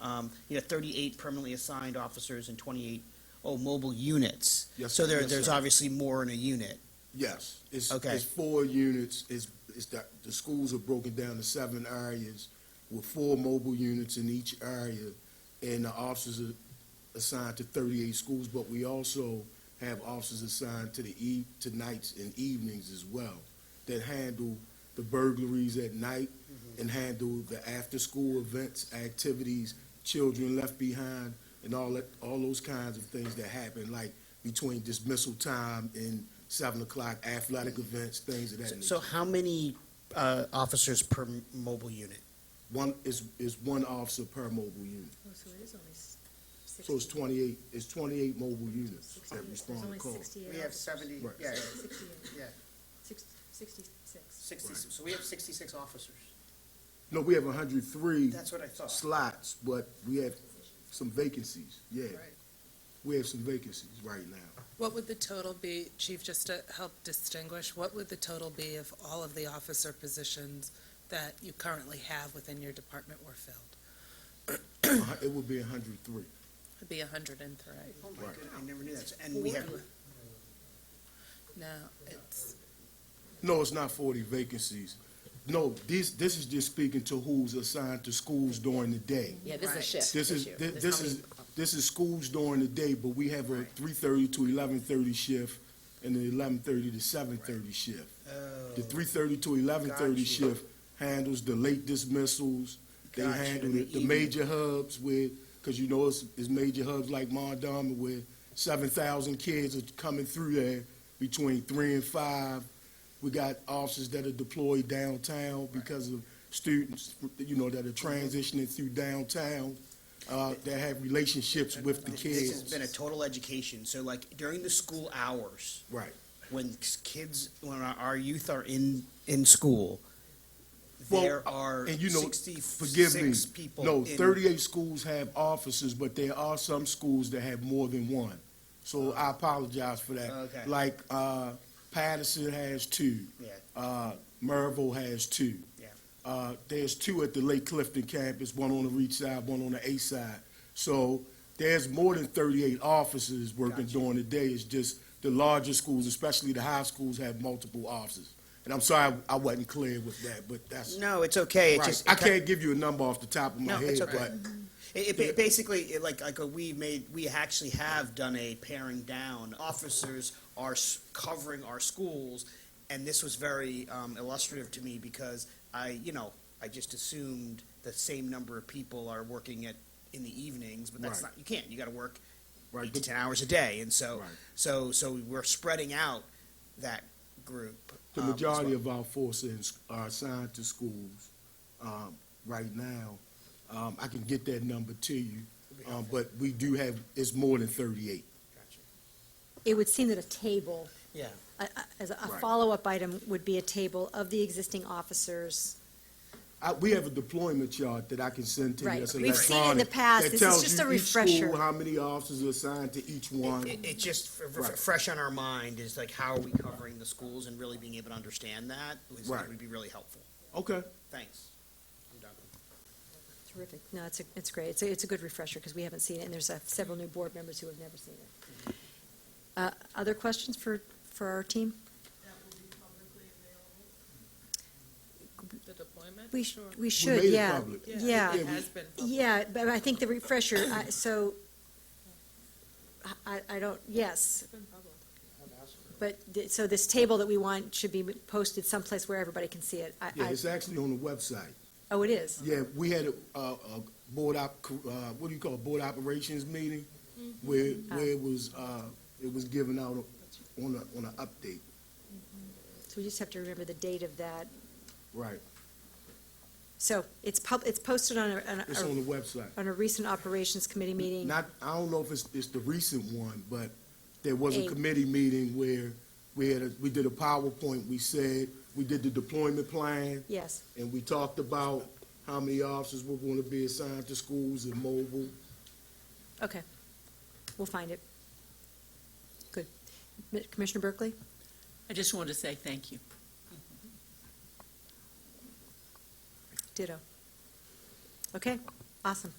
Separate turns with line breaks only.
um, you know, thirty-eight permanently assigned officers and twenty-eight, oh, mobile units.
Yes,
So there,
yes,
there's
sir.
obviously more in a unit.
Yes, it's,
Okay.
it's four units, it's, it's that, the schools are broken down to seven areas with four mobile units in each area, and the officers are assigned to thirty-eight schools, but we also have officers assigned to the e, to nights and evenings as well, that handle the burglaries at night and handle the after-school events, activities, children left behind, and all that, all those kinds of things that happen, like between dismissal time and seven o'clock athletic events, things of that nature.
So how many, uh, officers per m- mobile unit?
One is, is one officer per mobile unit.
Oh, so it is only s- sixty.
So it's twenty-eight, it's twenty-eight mobile units that
There's
respond
only
to calls.
sixty-eight.
We have
officers.
seventy,
Right.
yeah,
Sixty-eight,
yeah,
six, sixty-six.
sixty, so we have sixty-six officers.
No, we have hundred
Mm.
three
That's what I thought.
slots, but we have some vacancies, yeah.
Right.
We have some vacancies right now.
What would the total be, Chief, just to help distinguish, what would the total be if all of the officer positions that you currently have within your department were filled?
A hun- It would be hundred three.
It'd be hundred and three.
Oh my
Right.
goodness, I never knew that, and we have,
No, it's,
No, it's not forty vacancies. No, this, this is just speaking to who's assigned to schools during the day.
Yeah, this is a
Right.
shift
This is,
issue.
thi-
There's
this
how many-
is, this is schools during the day, but we have a three-thirty to eleven-thirty shift and an eleven-thirty to seven-thirty shift. The three-thirty to eleven-thirty
Gotcha.
shift handles the late dismissals. They
Gotcha,
handle
in the
the, the
evening.
major hubs where, cause you know, it's, it's major hubs like Mondama where seven thousand kids are coming through there between three and five. We got officers that are deployed downtown because of students, you know, that are transitioning through downtown, uh, that have relationships with the
This has
kids.
been a total education, so like during the school hours,
Right.
when kids, when our, our youth are in, in school,
Well,
there are
And you know, forgive me.
sixty-six people.
No,
in-
thirty-eight schools have officers, but there are some schools that have more than one. So I apologize for that.
Oh. Okay.
Like, uh, Patterson has two.
Yeah.
Uh, Merville has two.
Yeah.
Uh, there's two at the Lake Clifton campus, one on the reach side, one on the east side. So there's more than thirty-eight officers working
Gotcha.
during the day. It's just the larger schools, especially the high schools, have multiple officers. And I'm sorry I wasn't clear with that, but that's.
No, it's okay, it's
Right.
just.
I can't give you a number off the top of my
No,
head,
it's okay. Mm-hmm.
but
It, it ba- basically, it like, like, uh, we made, we actually have done a paring down. Officers are s- covering our schools, and this was very um, illustrative to me because I, you know, I just assumed the same number of people are working at, in the evenings, but that's
Right.
not, you can't, you gotta work
Right,
eight to
but-
ten hours a day, and so,
Right.
so, so we're spreading out that group.
the
um, as
majority
well.
of our forces are assigned to schools um, right now. Um, I can get that number to you, um, but we do have, it's more than thirty-eight.
Gotcha.
It would seem that a table,
Yeah.
a- a- as a
Right.
follow-up item would be a table of the existing officers.
I, we have a deployment chart that I can send to you.
Right.
that's
We've seen in the
electronic,
past.
that
This is
tells
just
you
a
each school
refresher.
How many officers are assigned to each one?
It, it just, f- f-
Right.
fresh on our mind is like, how are we covering the schools and really being able to understand that was,
Right.
would be really helpful.
Okay,
Thanks. I'm done.
Terrific. No, it's, a- it's great. It's a, it's a good refresher because we haven't seen it, and there's uh, several new board members who have never seen it. Uh, Other questions for, for our team?
the deployment?
We, sh- we
we
should,
made it
yeah.
public.
Yeah.
It has been public.
Yeah, but I think the refresher, I- so, I- I, I don't, yes. But, th- so this table that we want should be posted someplace where everybody can see it. I-
Yeah,
I-
it's actually on the website.
Oh, it is?
Yeah, we had a, a a board op, uh, what do you call it, board operations meeting?
Mm-hmm.
Where, where it was, uh, it was given out on a, on a update,
So we just have to remember the date of that.
right,
So it's pub, it's posted on a, on
it's on
a,
the website.
on a recent operations committee meeting.
Not, I don't know if it's, it's the recent one, but there was a
A-
committee meeting where we had, a- we did a PowerPoint, we said, we did the deployment plan,
Yes,
and we talked about how many officers were gonna be assigned to schools and mobile.
okay. We'll find it. Good. Mi- Commissioner Berkeley?
I just wanted to say thank you.
Ditto. Okay, awesome.